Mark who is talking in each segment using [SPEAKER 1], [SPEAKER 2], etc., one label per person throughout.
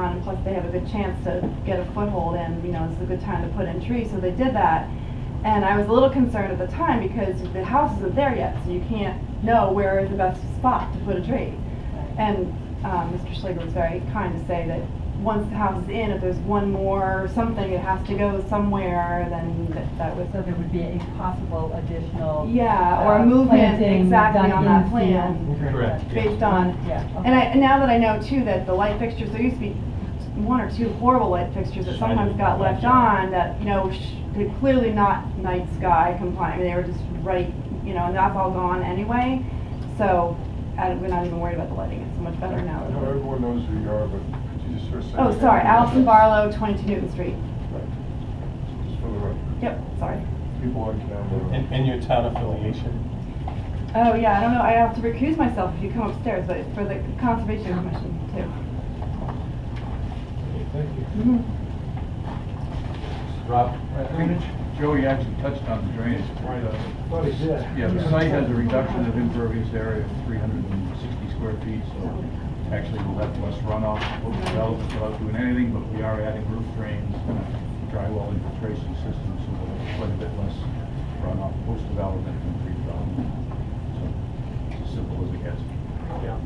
[SPEAKER 1] and plus they have a good chance to get a foothold and, you know, it's a good time to put in trees, so they did that. And I was a little concerned at the time because the house isn't there yet, so you can't know where is the best spot to put a tree. And um, Mr. Schlegel was very kind to say that once the house is in, if there's one more something, it has to go somewhere, then that- that was.
[SPEAKER 2] So there would be a possible additional.
[SPEAKER 1] Yeah, or
[SPEAKER 2] uh,
[SPEAKER 1] a movement
[SPEAKER 2] planting
[SPEAKER 1] exactly
[SPEAKER 2] done
[SPEAKER 1] on that
[SPEAKER 2] in
[SPEAKER 1] plan,
[SPEAKER 2] field.
[SPEAKER 3] Correct.
[SPEAKER 1] based on
[SPEAKER 2] Yeah. okay.
[SPEAKER 1] and I, and now that I know too that the light fixtures, there used to be one or two horrible light fixtures that sometimes got left on that, you know, sh- they're clearly not night sky compliant. They were just right, you know, and that's all gone anyway. So I, don't- we're not even worried about the lighting. It's so much better
[SPEAKER 4] I know
[SPEAKER 1] now.
[SPEAKER 4] everyone knows who you are, but could you just sort of say?
[SPEAKER 1] Oh, sorry, Allison Barlow, 22 Newton Street.
[SPEAKER 4] Right. Just for the record,
[SPEAKER 1] Yep, sorry.
[SPEAKER 4] people on camera.
[SPEAKER 3] And, and your town affiliation?
[SPEAKER 1] Oh, yeah, I don't know. I have to recuse myself if you come upstairs, but it's for the Conservation Commission too.
[SPEAKER 3] Thank you.
[SPEAKER 1] Mhm.
[SPEAKER 3] Rob?
[SPEAKER 5] Joey actually touched on the drainage.
[SPEAKER 6] What is that?
[SPEAKER 5] Yeah, the site has a reduction of impervious area of 360 square feet, so actually we'll have less runoff, we'll develop it without doing anything, but we are adding roof drains, and a drywall infiltration systems, so we'll have quite a bit less runoff post-development than pre-development. So it's as simple as it gets.
[SPEAKER 6] Yeah.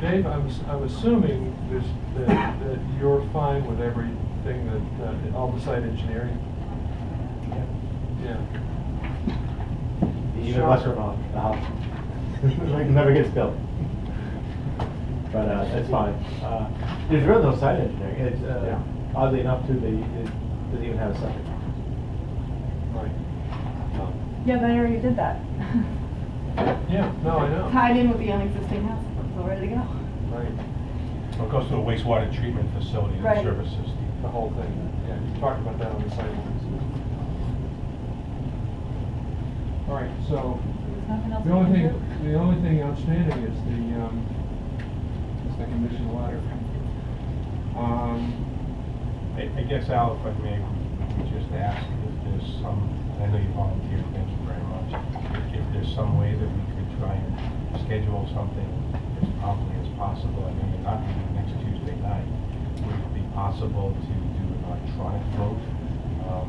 [SPEAKER 6] Dave, I'm, s- I'm assuming this, that, that you're fine with everything that, uh, all the site engineering? Yeah.
[SPEAKER 7] Even less remote, the house. Like, never gets built. But, uh, it's fine. Uh, there's really no site engineering. It's, uh, oddly enough, too, they, it doesn't even have a septic.
[SPEAKER 6] Right.
[SPEAKER 7] Um,
[SPEAKER 1] Yeah, but I already did that.
[SPEAKER 6] Yeah, no, I know,
[SPEAKER 1] Tied in with the existing house. It's all ready to go.
[SPEAKER 6] right,
[SPEAKER 3] It goes to a wastewater treatment facility
[SPEAKER 1] Right.
[SPEAKER 3] that services the
[SPEAKER 6] the whole thing, yeah, you talked about that on the site. plans. All right, so,
[SPEAKER 2] There's nothing else
[SPEAKER 6] the
[SPEAKER 2] we
[SPEAKER 6] only
[SPEAKER 2] can
[SPEAKER 6] thing,
[SPEAKER 2] do?
[SPEAKER 6] the only thing outstanding is the, um, is the condition letter. Um,
[SPEAKER 3] I I guess, Al, if I may, we just ask if there's some, I know you volunteered, thank you very much. If there's some way that we could try and schedule something as promptly as possible, I know you're not meeting next Tuesday night. Would it be possible to do an electronic vote? Um,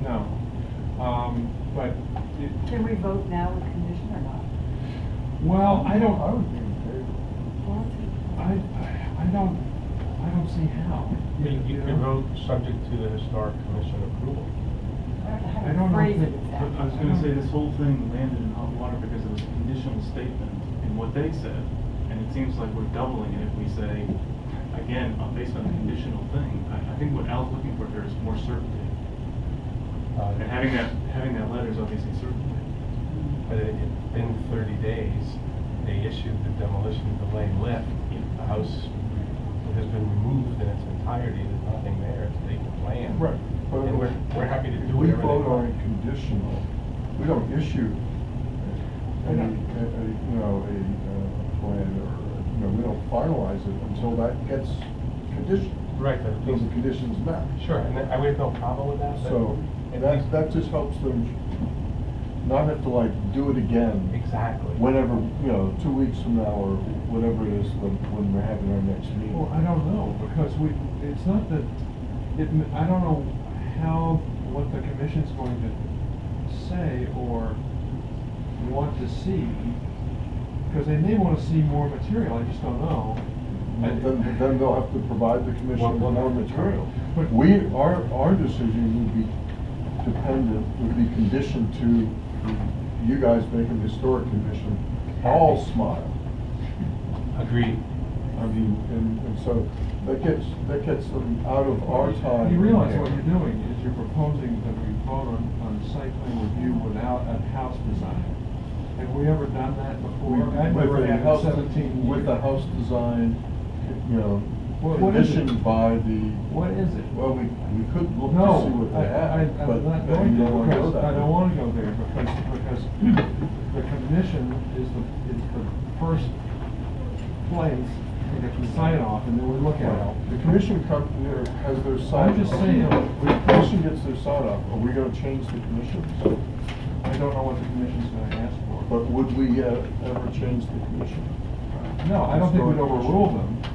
[SPEAKER 3] no.
[SPEAKER 6] no, um, but it,
[SPEAKER 2] Can we vote now with condition or not?
[SPEAKER 6] Well, I don't, I would be in favor. I, I don't, I don't see how.
[SPEAKER 3] I mean, You could vote subject to the historic commission approval.
[SPEAKER 6] I
[SPEAKER 2] I
[SPEAKER 6] don't
[SPEAKER 2] don't know
[SPEAKER 6] know
[SPEAKER 2] how to
[SPEAKER 6] if
[SPEAKER 2] phrase it
[SPEAKER 6] it-
[SPEAKER 2] exactly.
[SPEAKER 8] I was gonna say, this whole thing landed in hot water because it was a conditional statement in what they said, and it seems like we're doubling it if we say, again, uh, based on the conditional thing. I, I think what Al's looking for here is more certainty,
[SPEAKER 3] Uh,
[SPEAKER 8] and having that, having that letter is obviously certainty.
[SPEAKER 3] But it- it's been 30 days, they issued the demolition delay lift. The house has been removed in its entirety, there's nothing there to take the plan.
[SPEAKER 4] Right. but
[SPEAKER 3] And we're, we're happy to
[SPEAKER 4] If
[SPEAKER 3] do
[SPEAKER 4] we
[SPEAKER 3] whatever they
[SPEAKER 4] vote on
[SPEAKER 3] want.
[SPEAKER 4] it conditional, we don't issue a, a, a, you know, a, uh, plan or, you know, we don't finalize it until that gets conditioned,
[SPEAKER 3] Right, but
[SPEAKER 4] until the conditions met.
[SPEAKER 3] sure, and I would have no problem with that, but.
[SPEAKER 4] So
[SPEAKER 3] at
[SPEAKER 4] that,
[SPEAKER 3] least-
[SPEAKER 4] that just helps them not have to like do it again
[SPEAKER 3] Exactly.
[SPEAKER 4] whenever, you know, two weeks from now or whatever it is when, when we're having our next meeting.
[SPEAKER 6] Well, I don't know, because we, it's not that, it, m- I don't know how, what the commission's going to say or want to see, because they may wanna see more material, I just don't know.
[SPEAKER 4] But Then, then they'll have to provide the commission
[SPEAKER 3] One-
[SPEAKER 4] with
[SPEAKER 3] one
[SPEAKER 4] more
[SPEAKER 3] more
[SPEAKER 4] material.
[SPEAKER 6] But-
[SPEAKER 4] We, our, our decision would be dependent, would be conditioned to you guys making the historic commission all smile.
[SPEAKER 3] Agreed.
[SPEAKER 4] I mean, and, and so that gets, that gets them out of our time.
[SPEAKER 6] You realize what you're doing is you're proposing that we vote on, on site plan review without a house design. Have we ever done that before?
[SPEAKER 4] We-
[SPEAKER 6] I've
[SPEAKER 4] with
[SPEAKER 6] never
[SPEAKER 4] a
[SPEAKER 6] had in
[SPEAKER 4] house-
[SPEAKER 6] seventeen
[SPEAKER 4] With the
[SPEAKER 6] years.
[SPEAKER 4] house design, you know,
[SPEAKER 6] What- what is it?
[SPEAKER 4] conditioned by the,
[SPEAKER 6] What is it?
[SPEAKER 4] well, we, we could look to see
[SPEAKER 6] No,
[SPEAKER 4] what
[SPEAKER 6] I,
[SPEAKER 4] they
[SPEAKER 6] I,
[SPEAKER 4] have, but
[SPEAKER 6] I'm not
[SPEAKER 4] but
[SPEAKER 6] going
[SPEAKER 4] you
[SPEAKER 6] there
[SPEAKER 4] don't wanna go
[SPEAKER 6] because,
[SPEAKER 4] that
[SPEAKER 6] I don't
[SPEAKER 4] way.
[SPEAKER 6] wanna go there because, because the commission is the, is the first place to get the sign off and then we look at
[SPEAKER 4] Well,
[SPEAKER 6] it.
[SPEAKER 4] The commission come, there has their sign.
[SPEAKER 6] I'm just saying-
[SPEAKER 4] When the commission gets their sign off, are we gonna change the commission?
[SPEAKER 6] I don't know what the commission's gonna ask for.
[SPEAKER 4] But would we uh, ever change the commission?
[SPEAKER 6] No, I don't think we'd overrule them.